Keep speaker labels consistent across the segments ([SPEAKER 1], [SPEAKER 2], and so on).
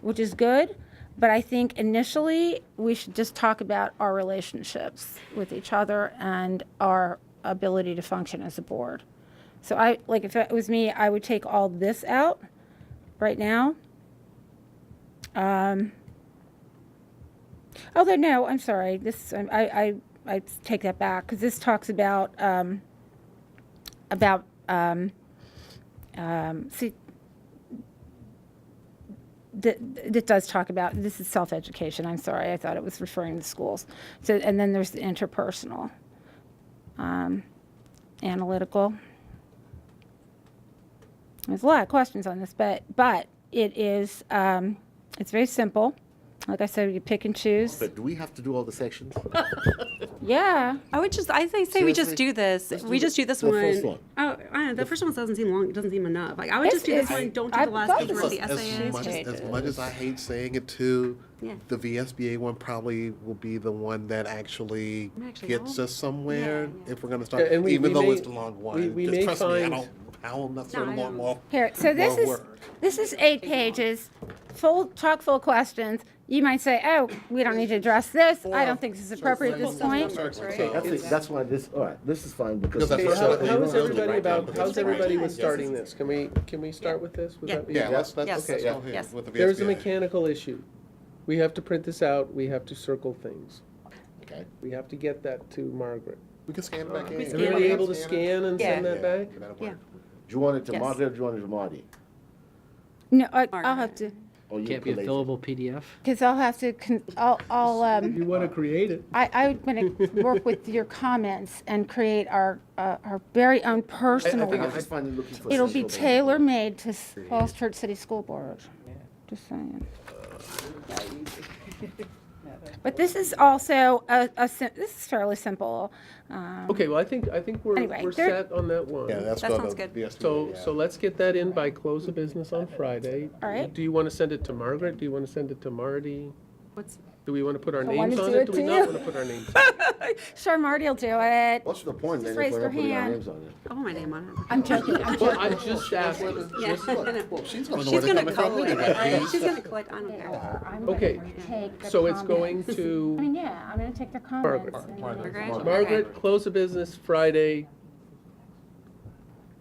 [SPEAKER 1] which is good. But I think initially we should just talk about our relationships with each other and our ability to function as a board. So I like if it was me, I would take all this out right now. Um, although no, I'm sorry. This I I, I, I take that back because this talks about um, about um, um, see that that does talk about this is self education. I'm sorry, I thought it was referring to schools. So and then there's the interpersonal, um, analytical. There's a lot of questions on this, but but it is um, it's very simple. Like I said, you pick and choose.
[SPEAKER 2] But do we have to do all the sections?
[SPEAKER 1] Yeah,
[SPEAKER 3] I would just, I say, say we just
[SPEAKER 2] Seriously?
[SPEAKER 3] do this.
[SPEAKER 2] Let's do
[SPEAKER 3] We
[SPEAKER 2] the-
[SPEAKER 3] just do this
[SPEAKER 2] the
[SPEAKER 3] one.
[SPEAKER 2] first one.
[SPEAKER 3] Oh, I don't know. The first one doesn't seem long. It doesn't seem enough. Like I would
[SPEAKER 1] It's-
[SPEAKER 3] just do this
[SPEAKER 1] it's-
[SPEAKER 3] one. Don't do
[SPEAKER 1] I-
[SPEAKER 3] the last
[SPEAKER 1] both
[SPEAKER 3] page
[SPEAKER 1] of
[SPEAKER 3] where the
[SPEAKER 1] us-
[SPEAKER 3] essay
[SPEAKER 4] as
[SPEAKER 3] is.
[SPEAKER 4] much as, as changes. much as I hate saying it too,
[SPEAKER 3] Yeah.
[SPEAKER 4] the VSBA one probably will be the one that actually,
[SPEAKER 3] I'm actually
[SPEAKER 4] gets
[SPEAKER 3] wrong.
[SPEAKER 4] us somewhere
[SPEAKER 3] Yeah, yeah.
[SPEAKER 4] if we're going to start.
[SPEAKER 5] And we-
[SPEAKER 4] even
[SPEAKER 5] we
[SPEAKER 4] though
[SPEAKER 5] may-
[SPEAKER 4] it's the long one,
[SPEAKER 5] we- we
[SPEAKER 4] Just
[SPEAKER 5] may
[SPEAKER 4] trust me, I
[SPEAKER 5] find-
[SPEAKER 4] don't howl necessarily
[SPEAKER 3] No, I
[SPEAKER 4] long,
[SPEAKER 3] know.
[SPEAKER 4] long.
[SPEAKER 1] here. So this
[SPEAKER 4] long
[SPEAKER 1] is
[SPEAKER 4] word.
[SPEAKER 1] this is eight pages, full chock full questions. You might say, oh, we don't need to address this. I don't think this is appropriate at this point.
[SPEAKER 2] Okay, that's, it. that's why this, all right, this is fine because.
[SPEAKER 4] Because that's
[SPEAKER 5] Okay,
[SPEAKER 4] what
[SPEAKER 5] how,
[SPEAKER 4] Well, you
[SPEAKER 5] how is
[SPEAKER 4] don't have to
[SPEAKER 5] everybody
[SPEAKER 4] write down
[SPEAKER 5] about,
[SPEAKER 4] the
[SPEAKER 5] how's
[SPEAKER 4] different
[SPEAKER 5] everybody with
[SPEAKER 4] times.
[SPEAKER 5] starting this? Can we, can we start with this? Would
[SPEAKER 3] Yeah.
[SPEAKER 5] that be-
[SPEAKER 4] Yeah, let's, let's,
[SPEAKER 3] Yes.
[SPEAKER 4] let's
[SPEAKER 5] Okay.
[SPEAKER 4] go ahead
[SPEAKER 3] Yes.
[SPEAKER 4] with the VSBA.
[SPEAKER 5] There's a mechanical issue. We have to print this out, we have to circle things.
[SPEAKER 4] Okay.
[SPEAKER 5] We have to get that to Margaret.
[SPEAKER 4] We can scan it back in.
[SPEAKER 3] We scan
[SPEAKER 5] Everybody
[SPEAKER 3] it.
[SPEAKER 5] able to scan and send
[SPEAKER 3] Yeah.
[SPEAKER 5] that back?
[SPEAKER 3] Yeah.
[SPEAKER 2] Do you want it to
[SPEAKER 3] Yes.
[SPEAKER 2] Marty or do you want it to Marty?
[SPEAKER 1] No, I, I'll
[SPEAKER 3] Margaret.
[SPEAKER 1] have to
[SPEAKER 2] Or you
[SPEAKER 6] Can't be a
[SPEAKER 2] collate it?
[SPEAKER 6] fillable PDF.
[SPEAKER 1] because I'll have to. Con- I'll I'll um.
[SPEAKER 5] You wanna create it?
[SPEAKER 1] I, I'm going to work with your comments and create our, uh, our very own
[SPEAKER 2] I
[SPEAKER 1] personal
[SPEAKER 2] think I'm
[SPEAKER 1] one.
[SPEAKER 2] just finally looking for.
[SPEAKER 1] It'll be
[SPEAKER 2] central-
[SPEAKER 1] tailor-made to S- Falls Church City School Board. Just saying. But this is also a, a, sim- this is fairly simple. Um,
[SPEAKER 5] Okay, well, I think, I think we're,
[SPEAKER 1] Anyway,
[SPEAKER 5] we're
[SPEAKER 1] there-
[SPEAKER 5] set on that one.
[SPEAKER 4] Yeah, that's
[SPEAKER 3] That
[SPEAKER 4] go
[SPEAKER 3] sounds
[SPEAKER 4] to
[SPEAKER 3] good.
[SPEAKER 4] VSBA,
[SPEAKER 5] So,
[SPEAKER 4] yeah.
[SPEAKER 5] so let's get that in by close of business on Friday.
[SPEAKER 1] All right.
[SPEAKER 5] Do you want to send it to Margaret? Do you want to send it to Marty?
[SPEAKER 3] What's
[SPEAKER 5] Do we want to put our
[SPEAKER 1] I wanna
[SPEAKER 5] names on
[SPEAKER 1] do
[SPEAKER 5] it?
[SPEAKER 1] it
[SPEAKER 5] Do we
[SPEAKER 1] to
[SPEAKER 5] not
[SPEAKER 1] you.
[SPEAKER 5] want to put our names?
[SPEAKER 1] Sure, Marty will do it.
[SPEAKER 2] What's the point
[SPEAKER 1] Just
[SPEAKER 2] then
[SPEAKER 1] raise
[SPEAKER 2] if we're
[SPEAKER 1] your
[SPEAKER 2] not putting our
[SPEAKER 1] hand.
[SPEAKER 2] names on it?
[SPEAKER 3] I want my name on it.
[SPEAKER 1] I'm joking, I'm
[SPEAKER 5] Well,
[SPEAKER 1] joking.
[SPEAKER 5] I'm just asking.
[SPEAKER 3] Yeah.
[SPEAKER 5] Just-
[SPEAKER 4] She's going to
[SPEAKER 3] She's gonna collect. I- She's gonna collect. I don't care.
[SPEAKER 1] I'm gonna
[SPEAKER 5] Okay,
[SPEAKER 1] take the
[SPEAKER 5] so it's going
[SPEAKER 1] comments. I
[SPEAKER 5] to
[SPEAKER 1] mean, yeah, I'm going to take the
[SPEAKER 5] Margaret.
[SPEAKER 1] comments. and then-
[SPEAKER 3] Margaret.
[SPEAKER 5] Margaret, close of business Friday.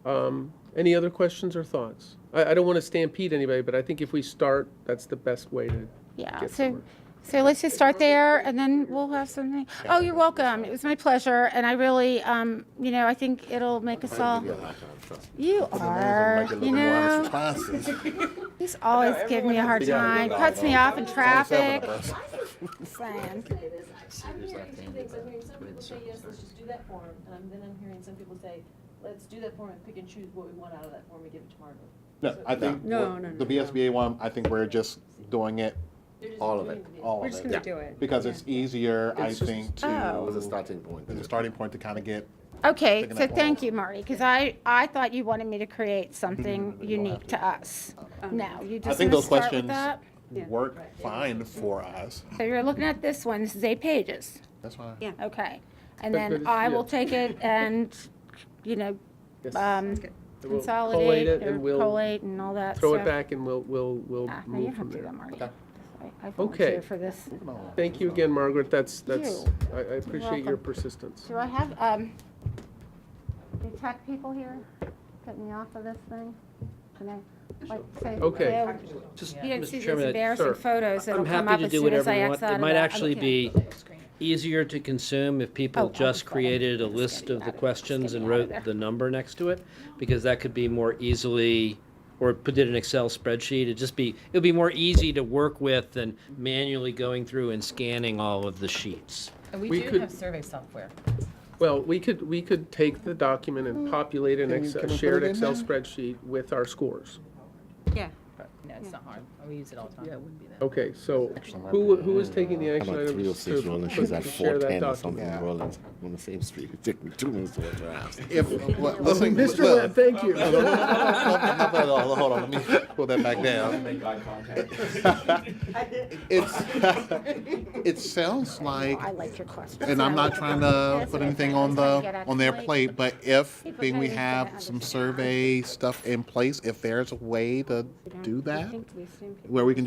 [SPEAKER 5] Um, Any other questions or thoughts? I, I don't want to stampede anybody, but I think if we start, that's the best way to
[SPEAKER 1] Yeah,
[SPEAKER 5] get
[SPEAKER 1] so,
[SPEAKER 5] somewhere.
[SPEAKER 1] so let's just start there and then we'll have something. Oh, you're welcome. It was my pleasure. And I really, um, you know, I think it'll make us all, you are, Uh, you know, he's always give me a hard time, cuts me off in traffic. Slam.
[SPEAKER 7] I'm hearing two things, I'm hearing some people say, yes, let's just do that form, and I'm- then I'm hearing some people say, let's do that form and pick and choose what we want out of that form and give it to Margaret.
[SPEAKER 4] No, I think,
[SPEAKER 3] No,
[SPEAKER 4] we're-
[SPEAKER 3] no, no, no.
[SPEAKER 4] the VSBA one, I think we're just doing it,
[SPEAKER 7] They're just
[SPEAKER 2] All of
[SPEAKER 7] doing
[SPEAKER 2] it,
[SPEAKER 7] the-
[SPEAKER 4] all
[SPEAKER 3] We're
[SPEAKER 4] of
[SPEAKER 3] just
[SPEAKER 4] it.
[SPEAKER 3] gonna do it.
[SPEAKER 4] Because it's easier, I
[SPEAKER 5] It's just-
[SPEAKER 4] think, to.
[SPEAKER 1] Oh.
[SPEAKER 2] What's the starting point?
[SPEAKER 4] As a starting point to kind of get,
[SPEAKER 1] Okay,
[SPEAKER 4] Taking
[SPEAKER 1] so
[SPEAKER 4] that one
[SPEAKER 1] thank
[SPEAKER 4] off.
[SPEAKER 1] you, Marty, because I, I thought you wanted me to create something
[SPEAKER 5] Mm-hmm.
[SPEAKER 1] unique to us.
[SPEAKER 3] Um,
[SPEAKER 1] No, you
[SPEAKER 4] I
[SPEAKER 1] just want
[SPEAKER 4] think
[SPEAKER 1] to
[SPEAKER 4] those
[SPEAKER 1] start with
[SPEAKER 4] questions
[SPEAKER 1] that.
[SPEAKER 3] Yeah.
[SPEAKER 4] work fine for us.
[SPEAKER 1] So you're looking at this one, this is eight pages.
[SPEAKER 4] That's fine.
[SPEAKER 3] Yeah.
[SPEAKER 1] Okay, and
[SPEAKER 5] But- but
[SPEAKER 1] then
[SPEAKER 5] it's-
[SPEAKER 1] I will
[SPEAKER 5] yeah.
[SPEAKER 1] take it and, you know,
[SPEAKER 5] Yes.
[SPEAKER 1] um,
[SPEAKER 3] good.
[SPEAKER 5] And we'll
[SPEAKER 1] consolidate
[SPEAKER 5] collate it
[SPEAKER 1] or
[SPEAKER 5] and we'll
[SPEAKER 1] collate and all that
[SPEAKER 5] Throw it
[SPEAKER 1] stuff.
[SPEAKER 5] back and we'll, we'll, we'll
[SPEAKER 1] Ah, No, you
[SPEAKER 5] move
[SPEAKER 1] have
[SPEAKER 5] from
[SPEAKER 1] to
[SPEAKER 5] there.
[SPEAKER 1] go, Marty. I I
[SPEAKER 5] Okay.
[SPEAKER 1] volunteer for this.
[SPEAKER 5] Thank you again, Margaret. That's, that's,
[SPEAKER 1] You.
[SPEAKER 5] I, I appreciate your
[SPEAKER 1] welcome.
[SPEAKER 5] persistence.
[SPEAKER 1] Do I have, um, the tech people here? Get me off of this thing? Can I, like, say?
[SPEAKER 5] Okay.
[SPEAKER 1] hello?
[SPEAKER 6] Just,
[SPEAKER 1] You don't see
[SPEAKER 6] Mr.
[SPEAKER 1] these
[SPEAKER 6] Chairman, I-
[SPEAKER 1] embarrassing
[SPEAKER 5] Sure.
[SPEAKER 1] photos that'll
[SPEAKER 6] I'm
[SPEAKER 1] come
[SPEAKER 6] happy
[SPEAKER 1] up
[SPEAKER 6] to
[SPEAKER 1] as
[SPEAKER 6] do
[SPEAKER 1] soon as
[SPEAKER 6] whatever
[SPEAKER 1] I
[SPEAKER 6] you
[SPEAKER 1] X
[SPEAKER 6] want.
[SPEAKER 1] out
[SPEAKER 6] It
[SPEAKER 1] of
[SPEAKER 6] might
[SPEAKER 1] that.
[SPEAKER 6] actually be easier to consume if
[SPEAKER 1] Oh,
[SPEAKER 6] people
[SPEAKER 1] I'm
[SPEAKER 6] just
[SPEAKER 1] sorry.
[SPEAKER 6] created a
[SPEAKER 1] Just
[SPEAKER 6] list
[SPEAKER 1] kidding.
[SPEAKER 6] of
[SPEAKER 1] Got
[SPEAKER 6] the
[SPEAKER 1] it.
[SPEAKER 6] questions
[SPEAKER 1] Just
[SPEAKER 6] and
[SPEAKER 1] kidding. Out of
[SPEAKER 6] wrote
[SPEAKER 1] there.
[SPEAKER 6] the number next to it, because that could be more easily, or put it in an Excel spreadsheet. It'd just be, it would be more easy to work with than manually going through and scanning all of the sheets.
[SPEAKER 8] And we
[SPEAKER 5] We
[SPEAKER 8] do
[SPEAKER 5] could-
[SPEAKER 8] have survey software.
[SPEAKER 5] Well, we could, we could take the document
[SPEAKER 1] Mm.
[SPEAKER 5] and populate an Excel, shared Excel spreadsheet with our scores.
[SPEAKER 3] Yeah.
[SPEAKER 8] No, it's not hard. We use it all the time. Yeah, it wouldn't be that.
[SPEAKER 5] Okay, so who, who is taking the action
[SPEAKER 2] I'm at three oh
[SPEAKER 5] items
[SPEAKER 2] six
[SPEAKER 5] to
[SPEAKER 2] rolling, she's
[SPEAKER 5] put-
[SPEAKER 2] at
[SPEAKER 5] to share
[SPEAKER 2] four
[SPEAKER 5] that
[SPEAKER 2] ten or something
[SPEAKER 5] document?
[SPEAKER 4] Yeah.
[SPEAKER 2] rolling on the same street. It took me two minutes to walk to her house.
[SPEAKER 4] If, listen.
[SPEAKER 5] Mr. Webb, thank you.
[SPEAKER 4] Hold on, let me pull that back down. It's, it sounds like,
[SPEAKER 1] I liked your question.
[SPEAKER 4] and I'm not trying to put anything on the, on their
[SPEAKER 1] plate.
[SPEAKER 4] plate, but if, being we have some survey stuff in place, if there's a way to do that, where we can